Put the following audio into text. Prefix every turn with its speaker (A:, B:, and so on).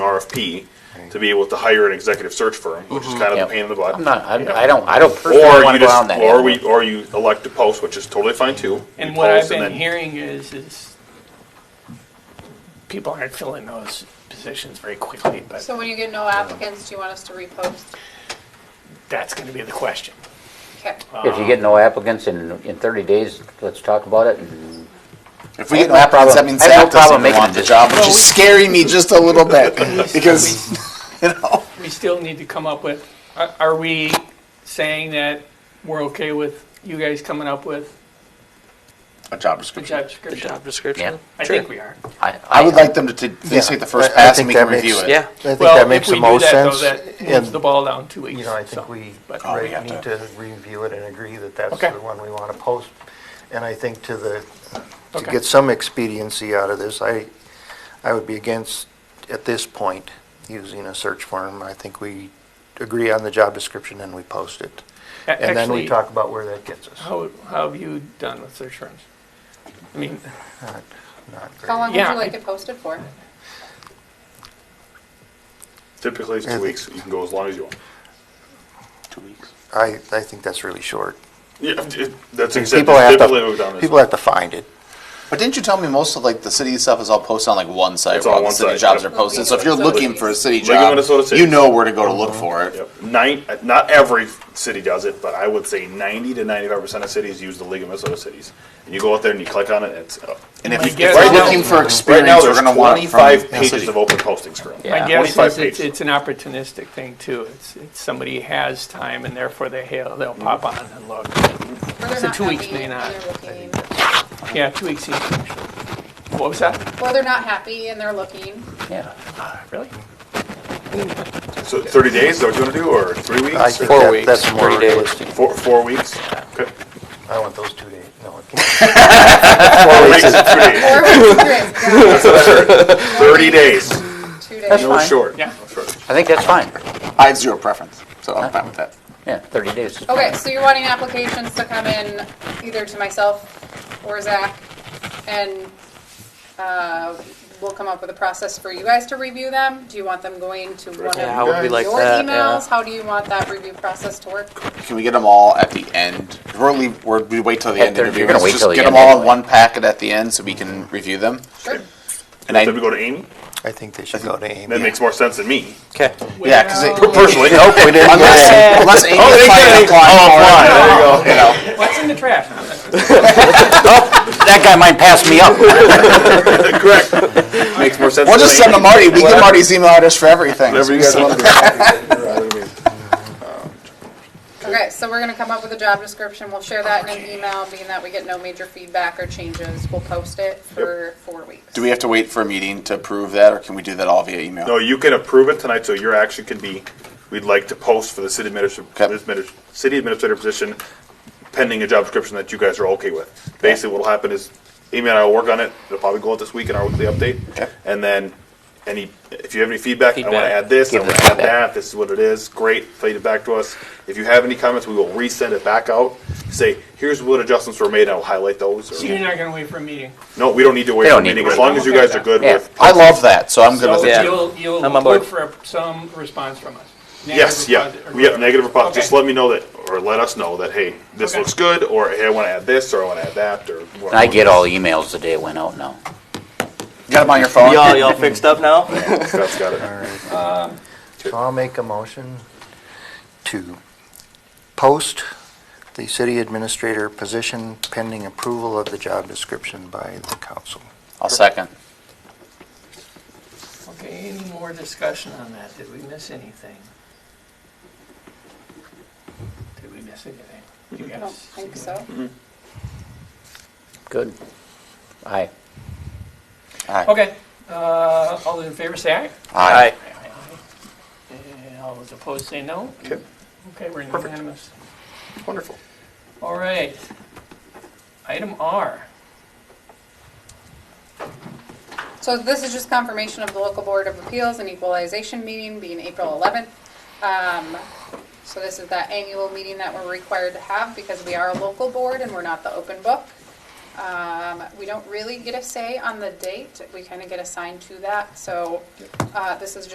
A: RFP to be able to hire an executive search firm, which
B: Mm-hmm.
A: is kind of
C: Yep.
A: a pain in the butt.
C: I'm not, I I don't, I don't personally
A: Or
C: want
A: you
C: to go down
A: just,
C: that.
A: or
C: avenue.
A: we, or you elect to post, which is totally fine too.
D: And
A: You
D: what I've
A: post and
D: been
A: then-
D: hearing is, is people aren't filling those positions very quickly, but
E: So when you get no applicants, do you want us to repost?
D: that's gonna be the question.
E: Okay.
C: If you get no applicants in, in 30 days, let's talk about it. and-
B: If we
C: I have
B: get no
C: no
B: applicants, that
C: problem-
B: means
C: I have no
B: Zach doesn't
C: problem
B: even
C: making
B: want
C: a
B: the
C: decision.
B: job, which is scaring me just a little bit, because,
D: We still need to come up with, are, are we saying that we're okay with you guys coming up with
B: a job
D: a
B: description.
D: job description?
F: Job description?
C: Yeah.
D: I think we are.
B: I would like them to, t- at least take the first
G: I- I
B: pass and
G: think
B: we can
G: that makes-
B: review it.
F: Yeah.
G: I think
D: Well,
G: that
D: if
G: makes
D: we
G: the
D: do
G: most
D: that, though,
G: sense.
D: That moves
G: And,
D: the ball down two weeks.
G: you know, I
D: so,
G: think we
D: but-
B: Oh, we
G: re-
B: have
G: need
B: to-
G: to review it and agree that that's
D: Okay.
G: the one we want to post. And I think to the, to
D: Okay.
G: get some expediency out of this, I, I would be against, at this point, using a search firm. I think we agree on the job description and we post it.
D: A-
G: And then we
D: actually,
G: talk about where that gets us.
D: How, how have you done with search firms? I mean,
G: Not- not
E: How long would
D: Yeah.
E: you like it posted for?
A: Typically it's two weeks, you can go as long as you want.
B: Two weeks.
G: great. I, I think that's really short.
A: Yeah, it- that's exactly,
G: People have
A: typically we've done this.
G: to, people have to find it.
B: But didn't you tell me most of like the city stuff is all posted on like one site
A: It's
B: where
A: on
B: all the
A: one
B: city
A: site,
B: jobs
A: yep.
B: are posted? So if you're looking for a city
A: League of
B: job,
A: Minnesota Cities.
B: you know where to go to look for it.
A: Yep. Nine, not every city does it, but I would say ninety to ninety-five percent of cities use the League of Minnesota Cities. And you go out there and you click on it, and it's, uh,
B: And if,
D: My
B: you, if
D: guess
B: we're
D: is-
B: looking for
A: right
B: experience,
A: now,
B: we're
A: there's
B: going to want it from
A: twenty-five
B: the
A: pages
B: city.
A: of open postings currently.
D: my
C: Yeah,
D: guess
A: 25
D: is it's,
A: pages.
D: it's an opportunistic thing too. It's, it's somebody has time and therefore they, they'll they'll pop on and look.
E: Or they're
D: So
E: not
D: two weeks
E: happy,
D: may
E: or
D: not.
E: they're looking-
D: Yeah, two weeks each. What was that?
E: Or they're not happy and they're looking.
C: Yeah.
D: Really?
A: So thirty days, is that what you wanna do, or three
G: I
A: weeks,
G: think
A: or
F: Four
G: that-
F: weeks,
G: that's more
F: three days.
G: realistic.
A: four, four weeks? Okay.
G: I want those two days, no. it can't.
A: Four weeks is two days.
E: Or Thirty
A: Thirty days,
E: Two days.
A: no
C: fine.
A: short.
D: Yeah.
A: No short.
C: I think that's fine.
B: I have zero preference, so I'm fine with that.
C: Yeah, 30 days. is
E: Okay,
C: fine.
E: so you're wanting applications to come in either to myself or Zach, and uh, we'll come up with a process for you guys to review them. Do you want them going to one of
F: Yeah, how would we
E: your
F: like that?
E: emails?
F: Yeah.
E: How do you want that review process to work?
B: Can we get them all at the end? We're leave, we're, we wait till the
C: Yeah,
B: end
C: they're-
B: interview.
C: you're gonna
B: Let's
C: wait
B: just
C: till the
B: get
C: end
B: them all in
C: anyway.
B: one packet at the end so we can review them.
E: Sure.
B: And I,
A: Then we go to Amy,
G: I think they should go to Amy.
A: that makes more sense than me,
F: Okay.
B: yeah, because
D: uh,
A: personally.
G: we didn't
B: unless, uh,
A: Oh,
B: unless Amy is fighting a client,
A: There you go.
D: What's in the draft?
C: That guy might pass me up.
A: Correct. Makes more sense.
B: we'll
A: than
B: just send them
A: Amy.
B: Marty. We get Marty's email address for everything.
A: Whatever you guys want to do.
E: Okay, so we're gonna come up with a job description, we'll share that in an email, being that we get no major feedback or changes, we'll post it for four weeks.
B: Do we have to wait for a meeting to approve that, or can we do that all via email?
A: No, you can approve it tonight, so your action can be, we'd like to post for the city
B: Okay.
A: administrator, city administrator position pending a job description that you guys are okay with. Basically, what'll happen is Amy and I will work on it. It'll probably go out this week in our weekly update.
B: Okay.
A: And then any, if you have any feedback, I want to
F: Feedback.
A: add this, I
C: Give
A: want
C: us
A: to add
C: feedback.
A: that, this is what it is, great, feed it back to us. If you have any comments, we will resend it back out. Say, here's what adjustments were made, I will highlight those. or-
D: So you're not gonna wait for a meeting?
A: No, we don't need to wait
C: They
A: for
C: don't
A: a
C: need
A: meeting,
C: to
A: as
C: wait.
A: long as you guys are good
C: Yeah.
A: with.
B: I love that, so I'm good with
D: So
B: it.
F: Yeah.
D: you'll, you'll
F: I'm on
D: look
F: board.
D: for some response from us. Negative
A: Yes, yeah,
D: response or
A: we have negative or positive,
D: Okay.
A: just let me know that, or let us know that, hey, this
D: Okay.
A: looks good, or hey, I wanna add this, or I wanna add that, or.
C: I get all emails the day it went out now.
B: You got them on your phone.
F: Y'all, y'all fixed up now?
A: Scott's got it.
G: So I'll make a motion to post the city administrator position pending approval of the job description by the council.
B: I'll second.
D: Okay, any more discussion on that? Did we miss anything? Did we miss anything? You
E: I don't
D: guys?
E: think so.
C: Good. Aye.
D: Okay, uh, all those in favor say aye.
B: Aye.
D: And Uh, all those opposed say no.
A: Okay,
D: Okay, we're unanimous.
A: wonderful.
D: All right. Item R.
E: So this is just confirmation of the local board of appeals and equalization meeting being April eleventh. Um, so this is that annual meeting that we're required to have because we are a local board and we're not the open book. Um, we don't really get a say on the date, we kinda get assigned to that, so, uh, this is just